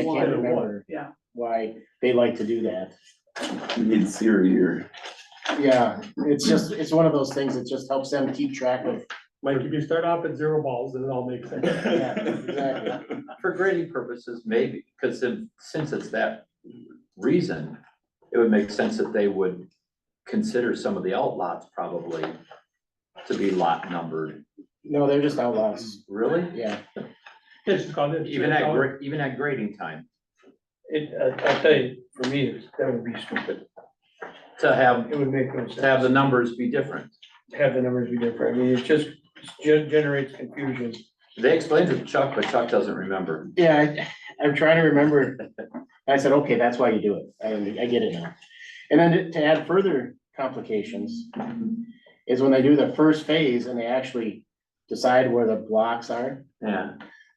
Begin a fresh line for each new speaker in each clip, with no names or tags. I
Why
can't
or what?
remember
Yeah.
why they like to do that.
It's here, here.
Yeah, it's just, it's one of those things that just helps them keep track of.
Like, if you start off at zero balls, then it all makes sense.
Yeah, exactly.
For grading purposes, maybe, because if, since it's that reason, it would make sense that they would consider some of the outlots probably to be lot numbered,
No, they're just outlaws,
really?
yeah.
It's just called.
Even at, gra- even at grading time,
It, I- I'll tell you, for me, it's- that would be stupid.
to have,
It would make no sense.
to have the numbers be different.
Have the numbers be different. I mean, it just gen- generates confusion.
They explained it to Chuck, but Chuck doesn't remember.
Yeah, I, I'm trying to remember. I said, okay, that's why you do it. I, I get it now. And then to add further complications
Mm-hmm.
is when they do the first phase and they actually decide where the blocks are.
Yeah,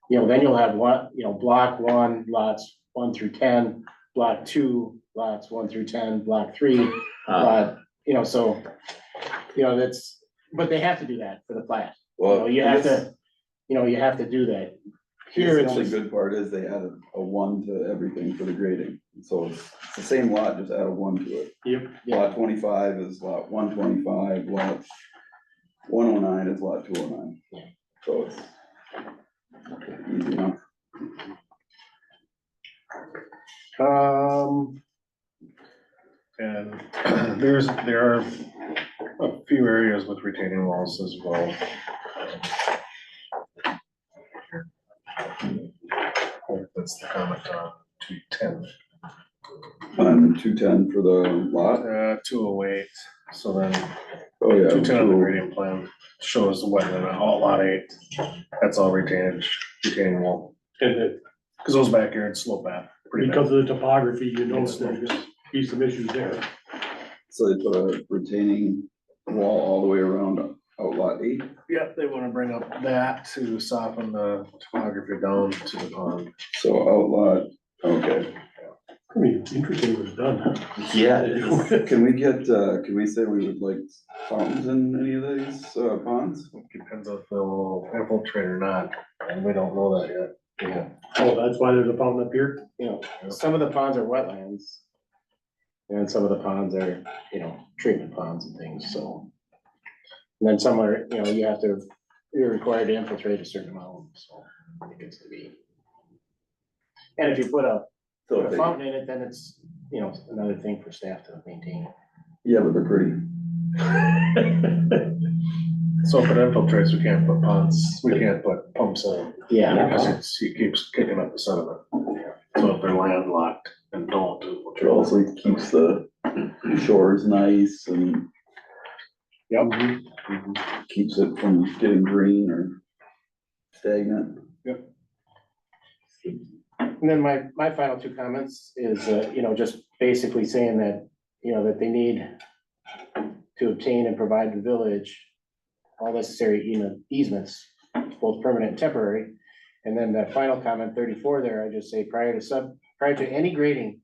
You know, then you'll have one, you know, block one, lots one through ten, block two, lots one through ten, block three,
uh,
lot, you know, so. You know, that's, but they have to do that for the plat. You know,
Well,
you have to, you know, you have to do that. Here
Here's
it's
the only
just,
good part is they added a one to everything for the grading, so it's it's the same lot, just add a one to it.
Yep.
Lot twenty-five is lot one twenty-five, lot one oh nine is lot two oh
Yeah.
nine. So it's easy enough.
um.
And there's, there are a few areas with retaining walls as well. Um, That's the comment on two ten,
And two-ten for the lot,
uh, two oh eight, so then
oh yeah.
two ten on the
208.
gradient plan shows the wetland on all lot eight. That's all retained, retaining wall,
And it-
because those backyards slope back pretty bad.
because of the topography, you know, there's gonna be some issues there.
So they put a retaining wall all the way around out lot eight.
Yep, they wanna bring up that to soften the topography down to the pond.
So outlot, okay.
I mean, interesting was done. Oh,
yeah, it is.
Can we get, uh, can we say we would like fountains in any of these uh, ponds?
Depends if they'll infiltrate or not, and we don't know that yet. Yeah.
Oh, that's why there's a fountain up here?
you know, some of the ponds are wetlands. And some of the ponds are, you know, treatment ponds and things, so. And then some are, you know, you have to, you're required to infiltrate a certain amount, so it gets to be. And if you put a put a fountain in it, then it's, you know, another thing for staff to maintain.
Yeah, but they're pretty.
So if it infiltrates, we can't put ponds, we can't put pumps in,
Yeah,
because it's, it keeps kicking up the sediment. So if they're landlocked and don't
It
infiltrate.
also keeps the shores nice and Mhm.
Yep.
keeps it from getting green or stagnant.
and then my, my final two comments is, uh, you know, just basically saying that, you know, that they need. To obtain and provide the village all necessary easement- easements, both permanent and temporary. And then that final comment, thirty-four there, I just say prior to sub, prior to any grading,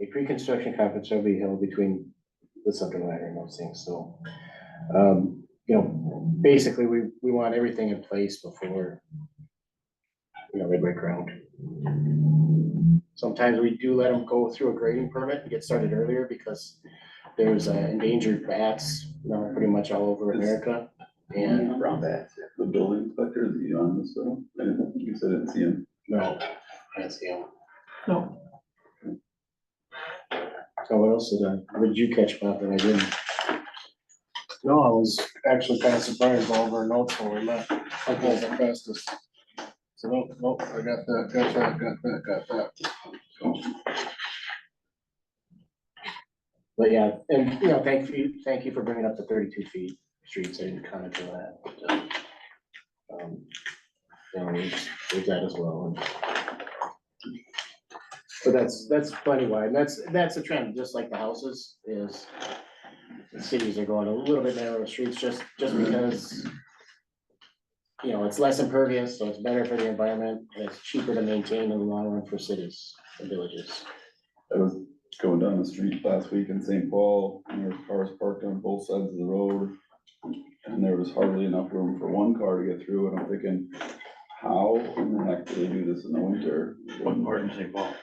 a pre-construction conference shall be held between the subject matter and those things, so. Um, you know, basically, we, we want everything in place before, you know, they break ground. Sometimes we do let them go through a grading permit and get started earlier because there's uh, endangered bats, you know, pretty much all over America. And
Around that.
The building inspector, is he on this though? I didn't- I guess I didn't see him.
No, I don't see him.
No.
So what else did I, what did you catch about that I didn't?
No, I was actually kind of surprised by all of our notes when we met, I was the fastest. So nope, nope, I got that, got that, got that, got that.
But yeah, and you know, thank you, thank you for bringing up the thirty-two feet streets. I didn't comment on that. but, uh, um, You know, there's there's that as well. and- But that's, that's plenty wide. and That's, that's a trend, just like the houses is. the Cities are going a little bit narrower streets just, just because. You know, it's less impervious, so it's better for the environment. and It's cheaper to maintain in the long run for cities and villages.
I was going down the street last week in St. Paul, and there were cars parked on both sides of the road. And there was hardly enough room for one car to get through, and I'm thinking,
how in the heck do they do this in the winter?
What part is involved?